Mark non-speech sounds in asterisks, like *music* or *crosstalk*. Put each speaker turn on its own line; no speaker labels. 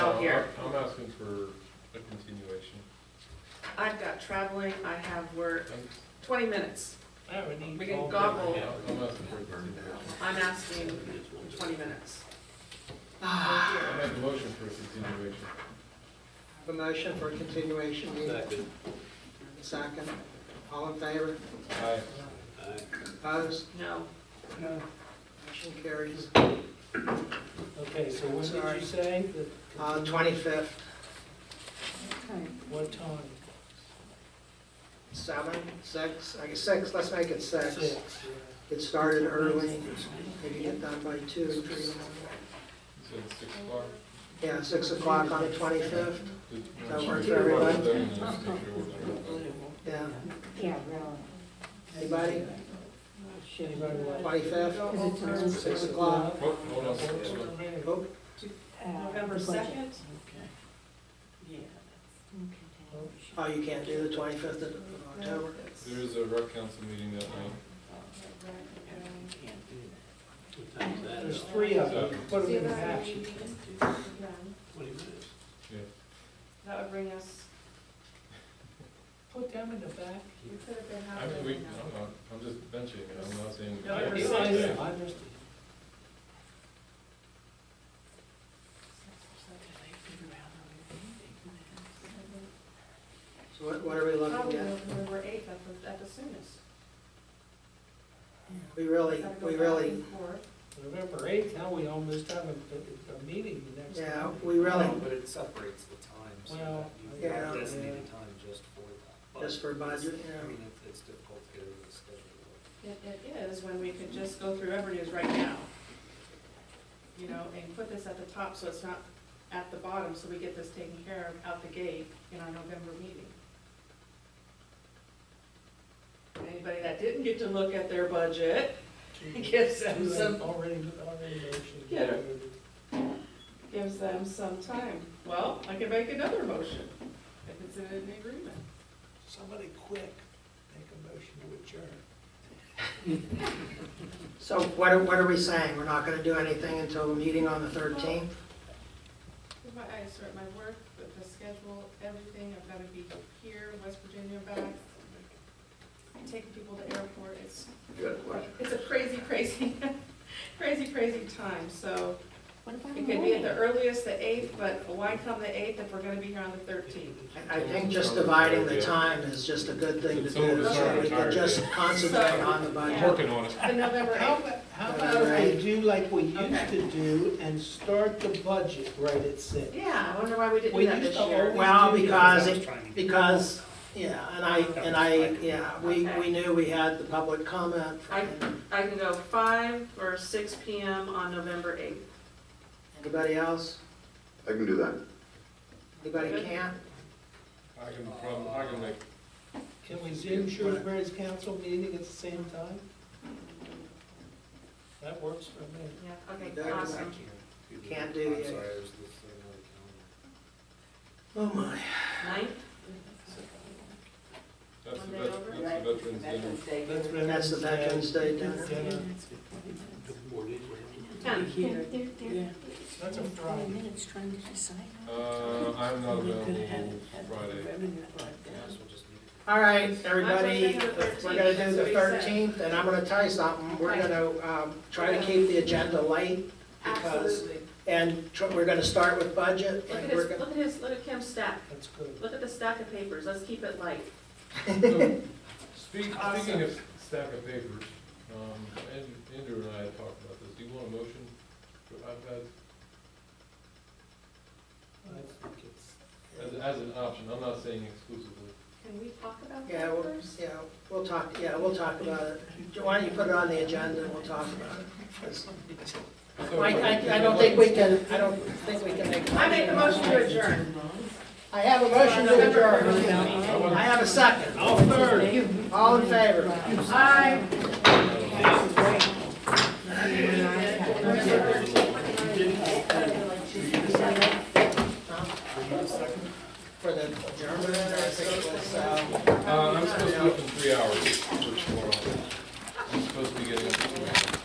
here.
I'm asking for a continuation.
I've got traveling, I have work,
I'm-
twenty minutes. We can
I'm
gobble,
asking for a continuation.
I'm asking for twenty minutes.
I make a motion for a continuation.
A motion for a continuation meeting. Second. All in favor?
Aye.
Opposed?
No,
No.
Motion carries.
Okay, so when did
Sorry.
you say? that-
Uh, 25th,
What time?
7, 6, I guess 6, let's make it 6.
Six, yeah.
It started early, maybe get done by 2 or 3 in the morning.
You said six o'clock?
Yeah, 6 o'clock on the 25th,
Did-
That work for everybody?
Then let's make sure we're done.
yeah.
Yeah, really.
Anybody?
Anybody like?
25th,
Is it
6 o'clock.
Hold Oh, hold on, hold on.
Oh,
November second,
Oh, you can't do the 25th of October?
There is a rec council meeting that night.
There's three of them, put them in action.
that would bring us,
Put them in the back.
we could have been
I mean,
halfway
we,
now.
I'm not, I'm just mentioning it, I'm not saying. we
No, I
can't do
realize
it.
that, I understand.
So what what are we
Probably
looking at?
November eighth at the, at the soonest.
We really,
Gotta go
we
back
really
and forth.
November eighth, now we almost have a, a- a meeting the next.
Yeah,
time.
we really,
No, But it separates the times. so
Well,
that you
Yeah.
have Designated time just for that. But
just for budget,
I
yeah.
mean, it's, it's difficult to get it in the schedule.
It, it is when we could just go through every news right now. You know, and put this at the top so it's not at the bottom, so we get this taken care of out the gate in our November meeting. Anybody that didn't get to look at their budget, *laughs* gives them
Two
some,
have Already, already mentioned.
Get gives them some time. Well, I can make another motion if it's in an agreement.
Somebody quick, make a motion to adjourn.
So what are, what are we saying? We're not gonna do anything until the meeting on the thirteenth?
With my, I start my work, with the schedule, everything, I've gotta be here, West Virginia, back, taking people to airport, it's, it's a crazy, *laughs* crazy, crazy, crazy time, so
What about
it could be at the earliest, the eighth, but why come the eighth if we're gonna be here on the thirteenth?
I, I think just dividing the time is just a good thing to do, so we can just concentrate on the
I'm
budget.
Working on it.
The November
How
eighth,
about, how about we do like we used to do and start the budget right at six?
yeah, I wonder why we didn't
We
do that
used
this
to
year.
always
Well,
do that.
because it, because, yeah, and I, and I, yeah, we, we knew we had the public comment.
I- I can go five or six P M on November eighth.
Anybody else?
I can do that.
Anybody can't?
I can, prob- I can make,
Can we zoom Shrewsbury's council meeting at the same time? That works for me.
Yeah, okay,
That is
I
awesome.
can't.
You can't do
I'm
the-
sorry, I was looking at the calendar.
Oh, my.
Ninth?
that's the,
Monday
vet-
over?
that's the veterans dinner.
That's
That's the Veterans Day dinner.
Dinner.
Tenth.
They're, they're, they're.
That's a
Twenty
Friday.
minutes trying to decide.
Uh, I'm not available Friday.
Might as well just leave it.
All right, everybody, we're gonna do the thirteenth, and I'm gonna tell you something, we're gonna, um, try to keep the agenda light, because,
Absolutely.
and tr- we're gonna start with budget,
Look at
and we're
his,
gonna,
look at his, look at Kim's stack,
That's good.
look at the stack of papers, let's keep it light.
*laughs* So, speak- Speaking of stack of papers, um, and- Andrew and I had talked about this, do you want a motion for iPads
I think it's-
as, as an option? I'm not saying exclusively.
Can we talk about
yeah,
that
we'll,
first?
yeah, we'll talk, yeah, we'll talk about it. Why don't you put it on the agenda, and we'll talk about it.
So-
I, I, I don't think we can, I don't think we can make.
I make a motion to adjourn.
I have a motion to adjourn.
I want-
I have a second. All third. All in favor?
Aye.
For the adjournment, I think it was, uh,
Uh, I'm supposed to be up in three hours.